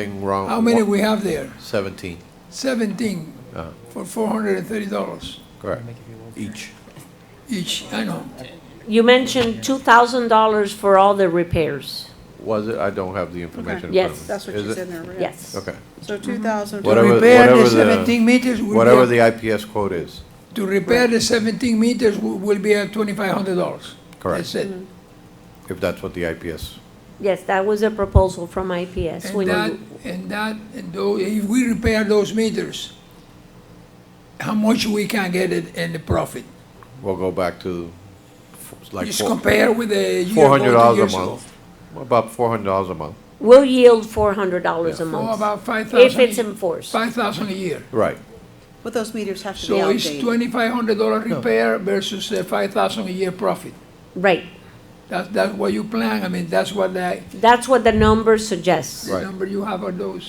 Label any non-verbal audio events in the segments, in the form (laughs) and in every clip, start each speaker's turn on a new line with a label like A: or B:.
A: Thing wrong.
B: How many we have there?
A: Seventeen,
B: 17
A: Uh.
B: for $430
A: correct, each.
B: each, I know.
C: You mentioned two thousand dollars for all the repairs.
A: Was it? I don't have the information. in front of
C: Yes.
A: me.
D: That's what
A: Is
D: she's
A: it?
D: in there, yeah.
C: Yes.
A: Okay,
D: So 2,000.
A: Whatever-
B: To repair
A: whatever
B: the
A: the-
B: 17 meters will
A: whatever
B: be,
A: the IPS quote is,
B: a- to repair the 17 meters wi- will be at $2,500. That's
A: correct,
B: it.
C: Mm,
A: if that's what the IPS,
C: Yes, that was a proposal from IPS. when
B: And that,
C: you-
B: and that, and tho- if we repair those meters, how much we can get it in the profit?
A: we'll go back to f- like
B: Just
A: four
B: compare with the year ago,
A: hundred
B: two
A: dollars
B: years
A: a
B: ago.
A: month. About four hundred dollars a month,
C: We'll yield four hundred dollars a
B: Oh,
C: month,
B: about 5,000.
C: if it's
B: a-
C: enforced.
B: 5,000 a year.
A: right,
D: But those meters have to be
B: So it's
D: outdated.
B: $2,500 repair versus uh, 5,000 a year profit.
C: Right,
B: That, that's what you plan, I mean, that's what the,
C: that's what the number suggests.
B: the
A: Right.
B: number you have on those.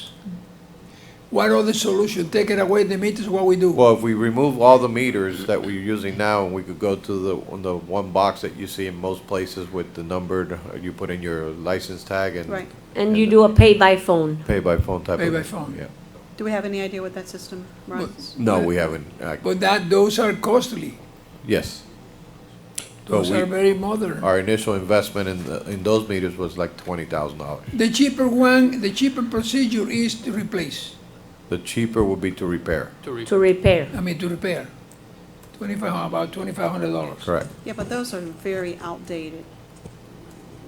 B: What other solution, take it away, the meters, what we do?
A: well, if we remove all the meters that we're using now, and we could go to the, on the one box that you see in most places with the numbered, you put in your license tag and.
D: Right.
C: And you do a pay by phone.
A: Pay by phone type of.
B: Pay by phone.
A: Yeah,
D: Do we have any idea what that system runs?
A: no, we haven't, uh,
B: But that, those are costly,
A: yes. But
B: those
A: we-
B: are very modern.
A: Our initial investment in, the- in those meters was like twenty thousand dollars.
B: The cheaper one, the cheaper procedure is to replace,
A: The cheaper would be to repair.
C: to repair.
B: I mean, to repair. Twenty-five, about twenty-five hundred dollars.
A: Correct.
D: Yeah, but those are very outdated.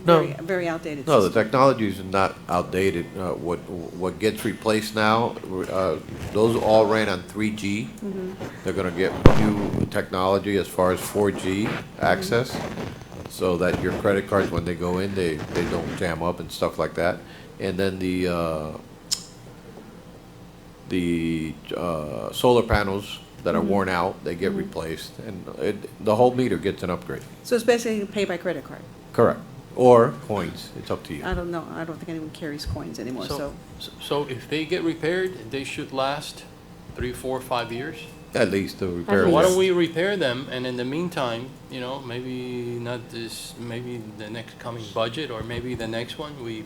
A: No.
D: Very- Very outdated
A: No, the
D: system.
A: technology is not outdated. Uh, what, what gets replaced now, uh, those all ran on three G. They're gonna get new technology as far as four G access, so that your credit cards, when they go in, they, they don't jam up and stuff like that. And then the, uh, the uh, solar panels that are worn out, they get replaced, and it, the whole meter gets an upgrade.
D: So it's basically pay by credit card.
A: Correct. Or coins, it's up to you.
D: I don't know, I don't think anyone carries coins anymore, so.
E: So if they get repaired, they should last three, four, five years?
A: At least the repair.
C: Yes.
E: Why don't we repair them, and in the meantime, you know, maybe not this, maybe the next coming budget, or maybe the next one, we,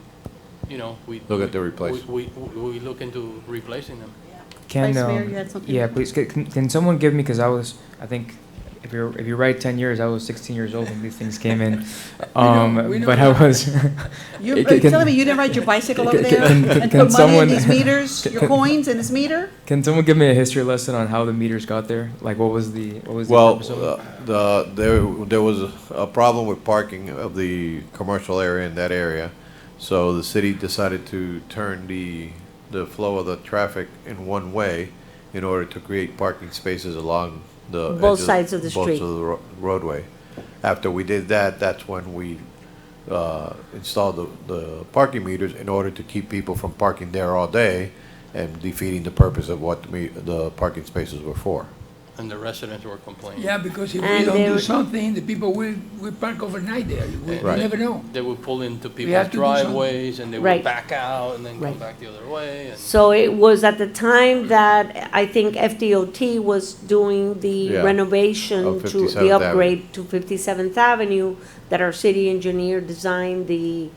E: you know, we.
A: Look at the
E: we-
A: replace.
E: We, we, we look into replacing them.
D: Vice
F: Can
D: Mayor,
F: um,
D: you had something?
F: yeah, please c- can, can someone give me because I was I think if you're if you're right, ten years I was 16 years old when these things
D: (laughs)
F: came in, (laughs) um,
B: we know
F: but I was. (laughs)
D: You're
F: It
D: are you
F: can-
D: telling me you didn't ride your bicycle over
F: can-
D: there
F: can- can-
D: and
F: can
D: put money in
F: someone-
D: these meters,
F: can-
D: your
F: can-
D: coins in this meter?
F: can someone give me a history lesson on how the meters got there? Like what was the what was the
A: Well,
F: purpose of it?
A: uh, the, there, there was a problem with parking of the commercial area in that area. So the city decided to turn the, the flow of the traffic in one way in order to create parking spaces along the.
C: Both
A: edges-
C: sides of the
A: Both
C: street.
A: of the ro- roadway. After we did that, that's when we, uh, installed the, the parking meters in order to keep people from parking there all day and defeating the purpose of what the, me- the parking spaces were for.
E: And the residents were complaining.
B: Yeah, because if we
C: And
B: don't
C: they
B: do
C: were-
B: something, the people will, will park overnight there, We- we
A: Right.
B: never know.
E: They would pull into
B: have
E: people's
B: to do something.
E: driveways, and they would
C: Right.
E: back out, and then come
C: Right.
E: back the other way, and.
C: So it was at the time that I think FDOT was doing the
A: Yeah.
C: renovation
A: Of
C: to
A: 57th
C: the
A: Avenue.
C: upgrade to Fifty-seventh Avenue, that our city engineer designed the,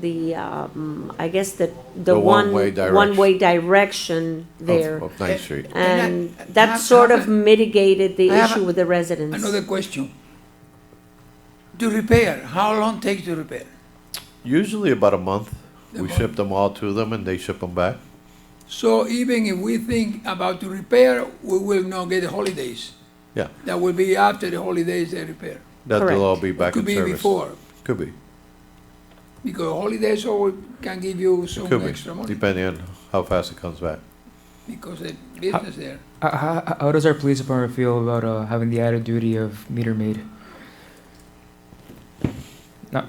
C: the, um, I guess the, the
A: The
C: one,
A: one-way direction.
C: one-way direction
A: of-
C: there.
A: Of Ninth Street.
C: And
B: And I- I
C: that
B: have-
C: sort of
B: have a-
C: mitigated the
B: I have a-
C: issue with the residents.
B: Another question. To repair, how long takes to repair?
A: Usually about a month.
B: A
A: We
B: month.
A: ship them all to them and they ship them back.
B: So even if we think about to repair, we will not get the holidays.
A: Yeah,
B: That will be after the holidays they repair.
A: that
C: Correct.
A: they'll all be back
B: Could
A: in
B: be
A: service.
B: before,
A: Could be,
B: because holidays always can give you some
A: could
B: extra
A: be,
B: money
A: depending on how fast it comes back.
B: because the business there.
F: Uh, how, how does our police department feel about uh, having the added duty of meter maid? Not,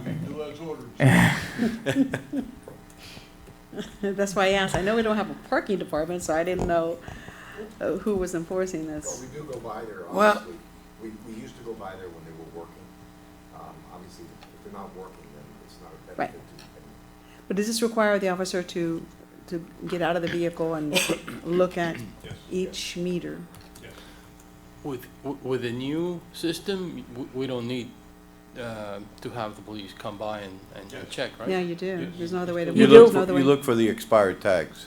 D: That's why I asked. I know we don't have a parking department, so I didn't know uh, who was enforcing this.
G: Well, we do go by there,
B: Well-
G: obviously. We, we used to go by there when they were working. Um, obviously, if they're not working, then it's not a
D: Right.
G: benefit to.
D: But does this require the officer to, to get out of the vehicle and look at each meter?
E: With, with the new system, w- we don't need uh, to have the police come by and, and check, right?
D: Yeah, you do. There's no other way to.
A: You
D: there's
A: look,
D: no
A: for-
D: other
A: you
D: way.
A: look for the expired tags.